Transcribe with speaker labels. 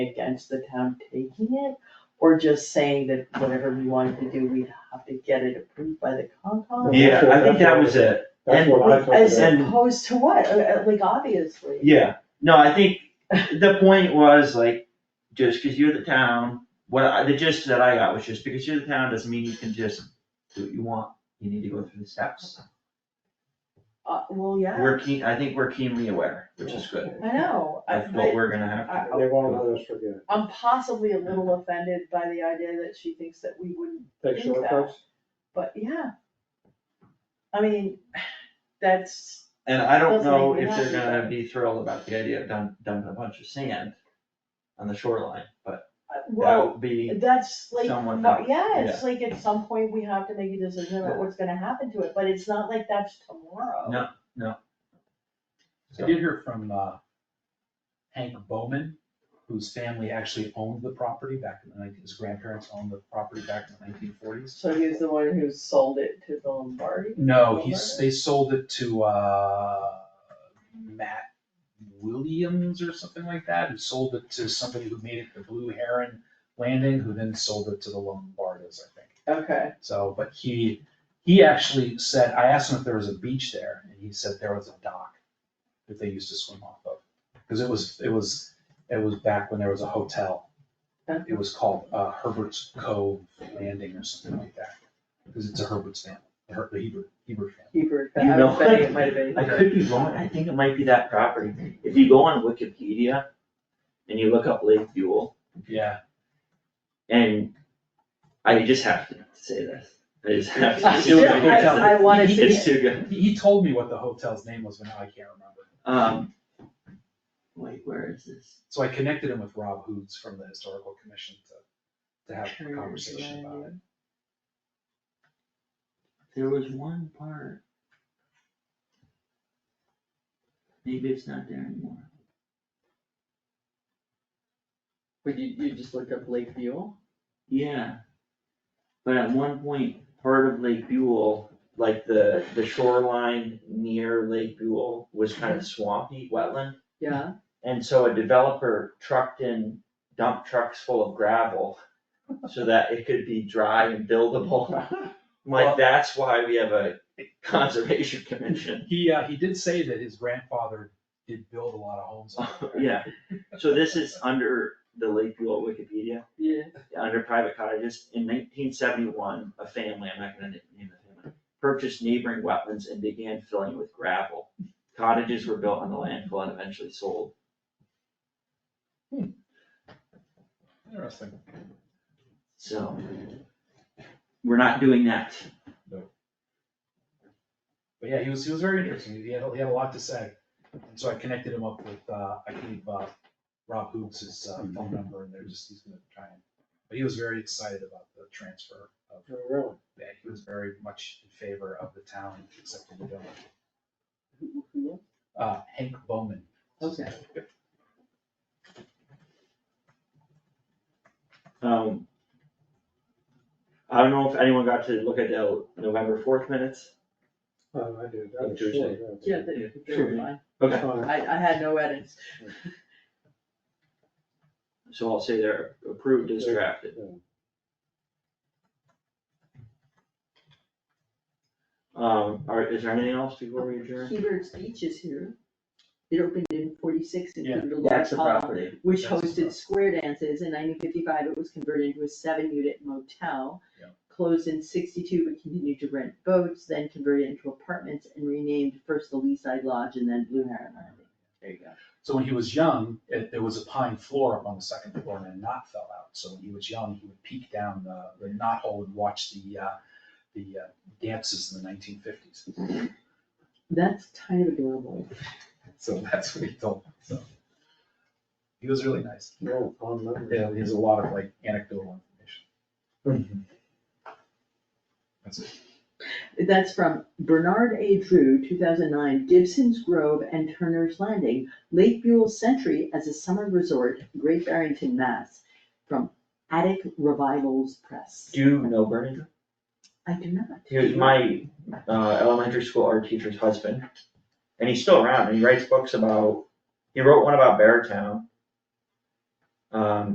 Speaker 1: against the town taking it, or just saying that whatever we wanted to do, we'd have to get it approved by the Concom?
Speaker 2: Yeah, I think that was it,
Speaker 3: That's
Speaker 2: And-
Speaker 3: what I thought.
Speaker 1: As
Speaker 3: about.
Speaker 2: and-
Speaker 1: opposed to what? Uh, uh, Like, obviously.
Speaker 2: yeah, no, I think the point was like, just because you're the town, what, I- the gist that I got was just because you're the town doesn't mean you can just do what you want, you need to go through the steps.
Speaker 1: Uh, well, yeah,
Speaker 2: We're keen, I think we're keenly aware, which is good,
Speaker 1: I know. I-
Speaker 2: of what we're gonna have to.
Speaker 1: I-
Speaker 3: They won't let us forget.
Speaker 1: I'm possibly a little offended by the idea that she thinks that we wouldn't,
Speaker 3: Take
Speaker 1: Think that.
Speaker 3: shortcuts.
Speaker 1: but yeah. I mean, that's,
Speaker 2: And I don't
Speaker 1: Doesn't
Speaker 2: know
Speaker 1: make
Speaker 2: if
Speaker 1: me
Speaker 2: they're
Speaker 1: happy.
Speaker 2: gonna be thrilled about the idea of dump, dumping a bunch of sand on the shoreline, but
Speaker 1: uh,
Speaker 2: that
Speaker 1: well,
Speaker 2: would be,
Speaker 1: that's like,
Speaker 2: Someone
Speaker 1: no,
Speaker 2: else,
Speaker 1: yeah, it's like at some point we have to make a decision about what's gonna happen to it, but it's not like that's tomorrow.
Speaker 2: No.
Speaker 4: I did hear from uh, Hank Bowman, whose family actually owned the property back in the nineteen, his grandparents owned the property back in the nineteen forties.
Speaker 1: So he's the one who sold it to the Lombardi?
Speaker 4: No, he's, they sold it to uh, Matt Williams or something like that, who sold it to somebody who made it the Blue Heron Landing, who then sold it to the Lombardos, I think.
Speaker 1: Okay,
Speaker 4: So, but he, he actually said, I asked him if there was a beach there, and he said there was a dock that they used to swim off of. Cause it was, it was, it was back when there was a hotel. It was called uh, Herbert's Cove Landing or something like that, cause it's a Herbert's family, the Her- the Hebert, Hebert family.
Speaker 1: Hebrew,
Speaker 2: You
Speaker 1: I
Speaker 2: know.
Speaker 1: was betting it might have been.
Speaker 2: I could be wrong, I think it might be that property, if you go on Wikipedia and you look up Lake Buell,
Speaker 4: Yeah,
Speaker 2: and I just have to say this, I just have
Speaker 1: I
Speaker 2: to.
Speaker 4: It was a hotel.
Speaker 1: I wanted to.
Speaker 2: It's too good,
Speaker 4: he, he told me what the hotel's name was, but now I can't remember.
Speaker 2: um, wait, where is this?
Speaker 4: So I connected him with Rob Hoods from the Historical Commission to, to have a conversation about it.
Speaker 2: There was one part. Maybe it's not there anymore.
Speaker 1: Would you, you just look up Lake Buell?
Speaker 2: Yeah. But at one point, part of Lake Buell, like the, the shoreline near Lake Buell was kind of swampy wetland.
Speaker 1: Yeah.
Speaker 2: And so a developer trucked in dump trucks full of gravel so that it could be dry and buildable. Like,
Speaker 4: Well-
Speaker 2: that's why we have a conservation commission.
Speaker 4: He, uh, he did say that his grandfather did build a lot of homes. on it, right?
Speaker 2: Yeah, so this is under the Lake Buell Wikipedia.
Speaker 1: Yeah.
Speaker 2: under private cottages, in nineteen seventy-one, a family, I'm not gonna na- name the family, purchased neighboring wetlands and began filling it with gravel. Cottages were built on the landfill and eventually sold.
Speaker 4: Interesting.
Speaker 2: So we're not doing that.
Speaker 4: But yeah, he was, he was very interesting. He had, he had a lot to say. And so I connected him up with, uh, I gave, uh, Rob Hoops his, uh, phone number and they're just, he's gonna try and, but he was very excited about the transfer of
Speaker 3: Oh, Really?
Speaker 4: that. He was very much in favor of the town accepting the building. Uh, Hank Bowman.
Speaker 1: Okay.
Speaker 2: Um, I don't know if anyone got to look at the November fourth minutes.
Speaker 3: Oh, I did.
Speaker 2: On
Speaker 3: That's
Speaker 2: Tuesday.
Speaker 3: short,
Speaker 1: Yeah,
Speaker 3: yeah.
Speaker 1: they, they were fine.
Speaker 2: Okay,
Speaker 3: Fine.
Speaker 1: I, I had no edits.
Speaker 2: so I'll say they're approved as drafted. Um, are, is there anything else before we adjourn?
Speaker 1: Hebert's Beach is here. It opened in forty-six,
Speaker 4: Yeah,
Speaker 1: included a large hall, which
Speaker 4: That's the
Speaker 1: hosted
Speaker 4: property.
Speaker 1: square dances. In nineteen fifty-five, it was converted into a seven-unit motel.
Speaker 4: Yeah.
Speaker 1: Closed in sixty-two, but continued to rent boats, then converted into apartments and renamed first the Lee Side Lodge and then Blue Heron Landing. There you go.
Speaker 4: So when he was young, it, there was a pine floor up on the second floor and a knot fell out. So when he was young, he would peek down the, the knot hole and watch the, uh, the uh, dances in the nineteen fifties.
Speaker 1: That's kind of adorable.
Speaker 4: So that's what he told me, so. He was really nice.
Speaker 3: No, fond memories.
Speaker 4: Yeah, he has a lot of like anecdotal information. That's it.
Speaker 1: That's from Bernard A. Drew, two thousand nine, Gibson's Grove and Turner's Landing, Lake Buell Century as a summer resort, Great Barrington, Mass. From Attic Revivals Press.
Speaker 2: Do you know Bernie?
Speaker 1: I do not.
Speaker 2: He was my uh, elementary school art teacher's husband, and he's still around, and he writes books about, he wrote one about Beartown. Um,